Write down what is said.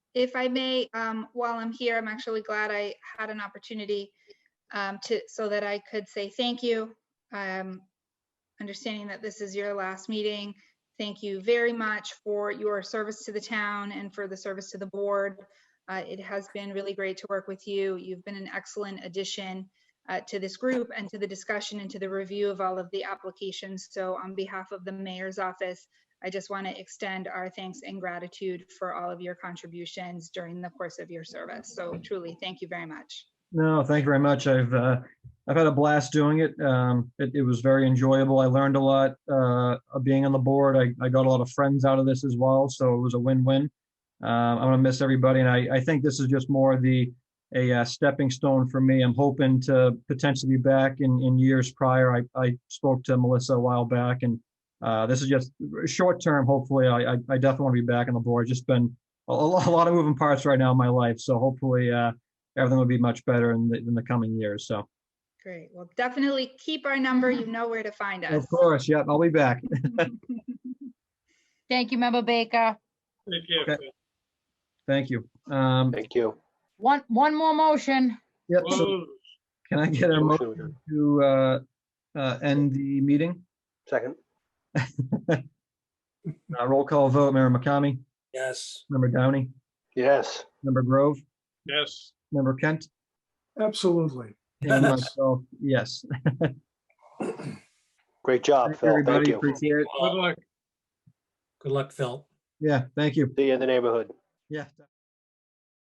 If I may, um, while I'm here, I'm actually glad I had an opportunity um, to, so that I could say thank you. Um, Understanding that this is your last meeting, thank you very much for your service to the town and for the service to the board. Uh, It has been really great to work with you. You've been an excellent addition uh, to this group and to the discussion and to the review of all of the applications. So on behalf of the mayor's office, I just want to extend our thanks and gratitude for all of your contributions during the course of your service. So truly, thank you very much. No, thank you very much. I've, uh, I've had a blast doing it. Um, it, it was very enjoyable. I learned a lot, uh, of being on the board. I, I got a lot of friends out of this as well, so it was a win-win. Um, I'm gonna miss everybody, and I, I think this is just more the, a uh, stepping stone for me. I'm hoping to potentially be back in, in years prior. I, I spoke to Melissa a while back, and, uh, this is just short-term, hopefully. I, I, I definitely want to be back on the board. Just been a, a lo- a lot of moving parts right now in my life, so hopefully, uh, everything will be much better in the, in the coming years. So, Great. Well, definitely keep our number. You know where to find us. of course, yep, I'll be back. Thank you, Member Baker. Thank you. Okay. Thank you. Um, Thank you. One, one more motion. yep, so Close. can I get a Motion motion adjourned. to, uh, uh, end the meeting? Second, Uh, roll call vote, Member McCamey, Yes. Member Downey, yes. Member Grove, Yes. Member Kent, Absolutely. and myself, yes. Great job, Thank you, Phil. Thank Everybody, you. appreciate it. Good luck. Good luck, Phil. Yeah, thank you. See you in the neighborhood. Yeah.